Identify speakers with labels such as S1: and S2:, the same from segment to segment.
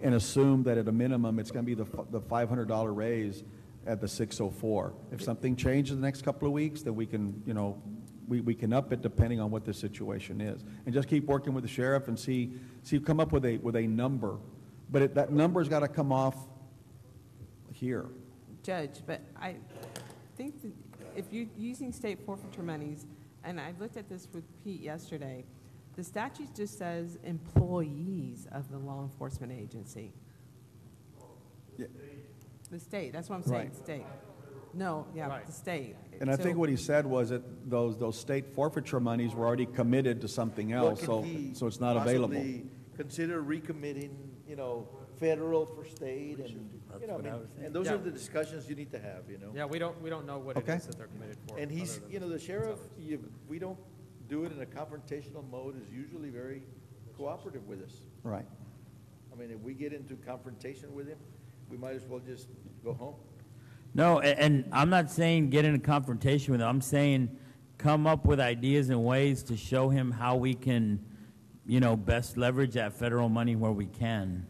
S1: and assume that at a minimum, it's going to be the, f- the $500 raise at the 604. If something changes in the next couple of weeks, then we can, you know, we, we can up it depending on what the situation is. And just keep working with the sheriff and see, see, come up with a, with a number. But it- that number's got to come off here.
S2: judge, but I think that if you're using state forfeiture monies, and I looked at this with Pete yesterday, the statute just says employees of the law enforcement agency.
S1: Yeah.
S2: The state, that's what I'm saying,
S1: Right.
S2: state. No, yeah,
S3: Right.
S2: the state.
S1: And I
S2: So-
S1: think what he said was that those, those state forfeiture monies were already committed to something else,
S4: What
S1: so,
S4: could he
S1: so it's not available.
S4: possibly Consider recommitting, you know, federal for state and, you know, I mean, and those are
S3: Yeah.
S4: the discussions you need to have, you know?
S3: Yeah, we don't, we don't know what it
S1: Okay.
S3: is that they're committed for.
S4: And he's,
S3: other than
S4: you know, the sheriff,
S3: salaries.
S4: you, we don't do it in a confrontational mode, is usually very cooperative with us.
S1: Right.
S4: I mean, if we get into confrontation with him, we might as well just go home.
S5: No, a- and I'm not saying get in a confrontation with him. I'm saying come up with ideas and ways to show him how we can, you know, best leverage that federal money where we can.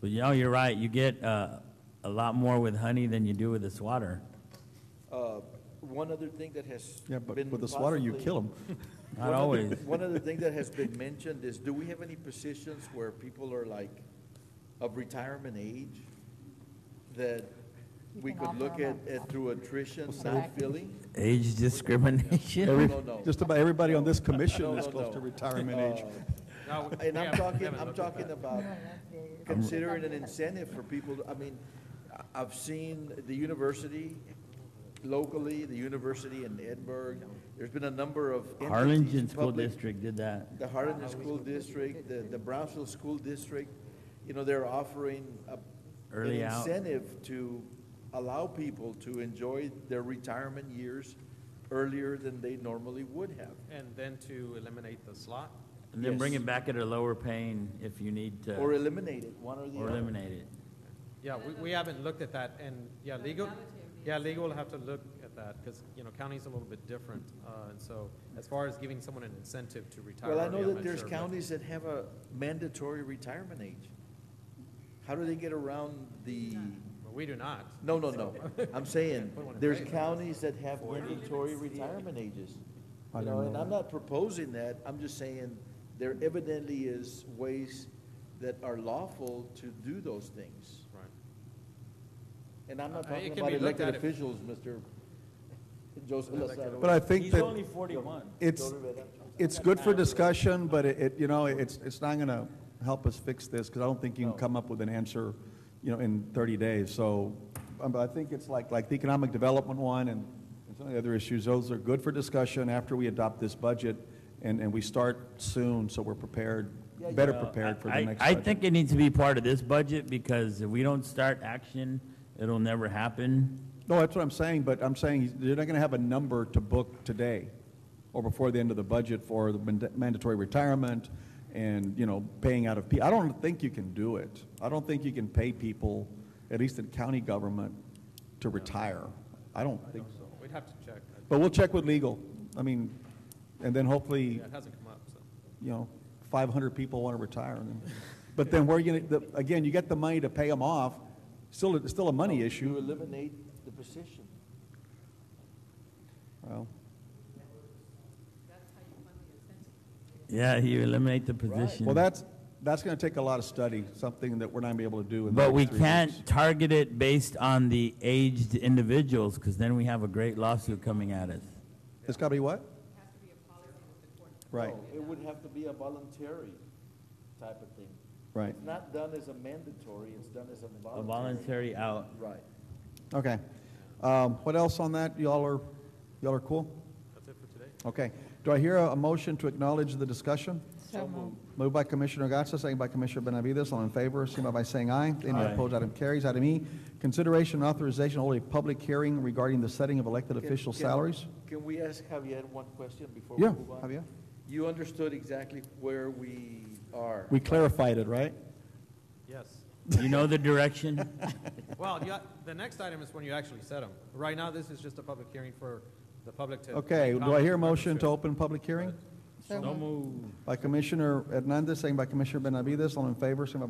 S5: But you know, you're right. You get uh, a lot more with honey than you do with this water.
S4: Uh, One other thing that has
S1: Yeah, but
S4: been
S1: with the swatter, you
S4: possibly-
S1: kill them.
S5: Not
S4: One other-
S5: always.
S4: One other thing that has been mentioned is, do we have any positions where people are like of retirement age? That
S6: You
S4: we
S6: can
S4: could
S6: offer
S4: look at,
S6: them
S4: at through attrition, not
S6: Correct.
S4: filling?
S5: Age discrimination.
S1: Every-
S4: No, no.
S1: Just about everybody on this
S4: No,
S1: commission
S4: no,
S1: is close to
S4: no.
S1: retirement
S4: Uh,
S1: age.
S4: And
S3: No, we- we
S4: I'm
S3: haven't- we
S4: talking,
S3: haven't
S4: I'm
S3: looked at
S4: talking
S3: that.
S4: about considering an incentive for people, to- I mean, I- I've seen the university locally, the university in Edinburgh, there's been a number of. entities,
S5: Harlingen School
S4: public-
S5: District did that.
S4: The Harlingen School District, the, the Brownsville School District, you know, they're offering a.
S5: Early
S4: an
S5: out.
S4: Incentive to allow people to enjoy their retirement years earlier than they normally would have.
S3: And then to eliminate the slot,
S5: And then bring
S4: Yes.
S5: it back at a lower paying if you need to,
S4: Or
S5: or
S4: eliminate it, one or the other.
S5: eliminate it.
S3: yeah, we, we haven't looked at that, and, yeah, legal, yeah, legal will have to look at that, because, you know, county's a little bit different, uh, and so, as far as giving someone an incentive to retire
S4: Well, I
S3: early,
S4: know
S3: I'm
S4: that
S3: not
S4: there's
S3: sure, but-
S4: counties that have a mandatory retirement age. How do they get around the,
S3: But we do not.
S4: no, no, no, I'm saying,
S3: Put one in
S4: there's
S3: place.
S4: counties that have mandatory retirement ages.
S1: I don't
S4: You know, and
S1: know
S4: I'm
S1: that.
S4: not proposing that, I'm just saying, there evidently is ways that are lawful to do those things.
S3: Right.
S4: And I'm not
S3: Uh, it
S4: talking
S3: can
S4: about
S3: be looked
S4: elected
S3: at if-
S4: officials, Mr. Joseph Lozano.
S1: But I think that.
S5: forty-one.
S1: It's, it's good for discussion, but it, it, you know, it's, it's not going to help us fix this, because I don't think you can come up with an answer, you know, in 30 days. So, um, but I think it's like, like the economic development one and and some of the other issues, those are good for discussion after we adopt this budget, and, and we start soon, so we're prepared, better prepared for the
S5: I-
S1: next
S5: I
S1: budget.
S5: think it needs to be part of this budget because if we don't start action, it'll never happen.
S1: No, that's what I'm saying, but I'm saying you're not going to have a number to book today or before the end of the budget for the mand- mandatory retirement and, you know, paying out of, P I don't think you can do it. I don't think you can pay people, at least in county government, to retire. I don't think so.
S3: We'd have to check.
S1: But we'll check with legal. I mean, and then hopefully,
S3: Yeah, it hasn't come up, so.
S1: you know, 500 people want to retire. and then- But then where are you going to, again, you get the money to pay them off, still, it's still a money
S4: To
S1: issue.
S4: eliminate the position.
S1: Well,
S5: Yeah, you eliminate the
S4: Right.
S5: position.
S1: Well, that's, that's going to take a lot of study, something that we're not going to be able to do in the
S5: But we
S1: next three
S5: can't
S1: weeks.
S5: target it based on the aged individuals because then we have a great lawsuit coming at us.
S1: It's got to be what? Right,
S4: No, It would have to be a voluntary type of thing.
S1: Right.
S4: It's not done as a mandatory, it's done as a
S5: A
S4: voluntary.
S5: voluntary out.
S4: Right.
S1: okay. Um, What else on that? Y'all are, y'all are cool?
S3: That's it for today.
S1: Okay. Do I hear a a motion to acknowledge the discussion?
S6: So moved.
S1: Moved by Commissioner Gatsa, second by Commissioner Benavides. All in favor, signify by saying aye. Any opposed, item carries. Item E, consideration and authorization to hold a public hearing regarding the setting of elected
S4: Can-
S1: official
S4: can-
S1: salaries.
S4: Can we ask Javier one question before we
S1: Yeah,
S4: move on?
S1: Javier.
S4: You understood exactly where we are.
S1: We clarified it, right?
S3: Yes.
S5: You know the direction?
S3: Well, you, the next item is when you actually set them. Right now, this is just a public hearing for the public to.
S1: Okay, do I hear a motion to open public hearing?
S3: But-
S5: No move.
S1: By Commissioner Hernandez, second by Commissioner Benavides. All in favor, signify